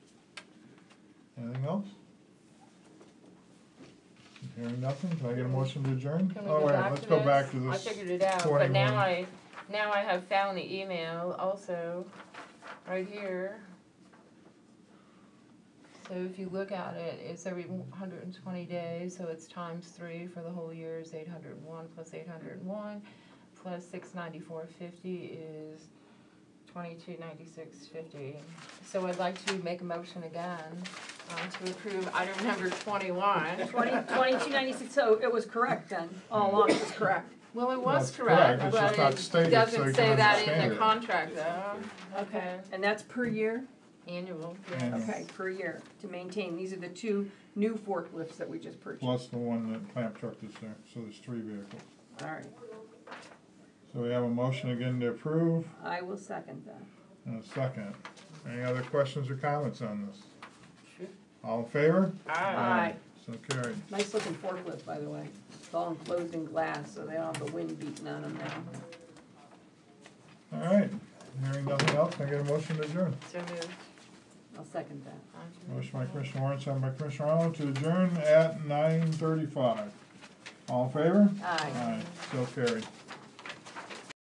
Anything else? Hearing nothing, can I get a motion to adjourn? Can we Oh, go wait, back let's to go back to I this. figured it out, but 21. now I, now I have found the email also, right here. So if you look at it, it's every hundred and twenty days, so it's times three for the whole year is eight hundred and one plus eight hundred and one, plus six ninety-four fifty is twenty-two ninety-six fifty. So I'd like to make a motion again, um, to approve item number twenty-one. Twenty, twenty-two ninety-six, so it was correct then, all along it was correct. Well, it Well, was it's correct, correct, it's just but not it stated, so doesn't you say can that in understand the it. contract though. Okay. And that's per year? Annual, Yeah. yes. Okay, per year, to maintain, these are the two new forklifts that we just purchased, all Plus the one that clamp truck is there, so there's three vehicles. right, So we have a motion again to approve I will second that. and a second. Any other questions or comments on this? All in favor? Aye. So carried. Nice looking forklift, by the way, it's all enclosed in glass, so they don't have the wind beating on them now. All right, hearing nothing else, can I get a motion to adjourn? So moved. I'll second that. Motion by Commissioner Warren, second by Commissioner Arnold to adjourn at nine thirty-five. All in favor? Aye. Aye, so carried.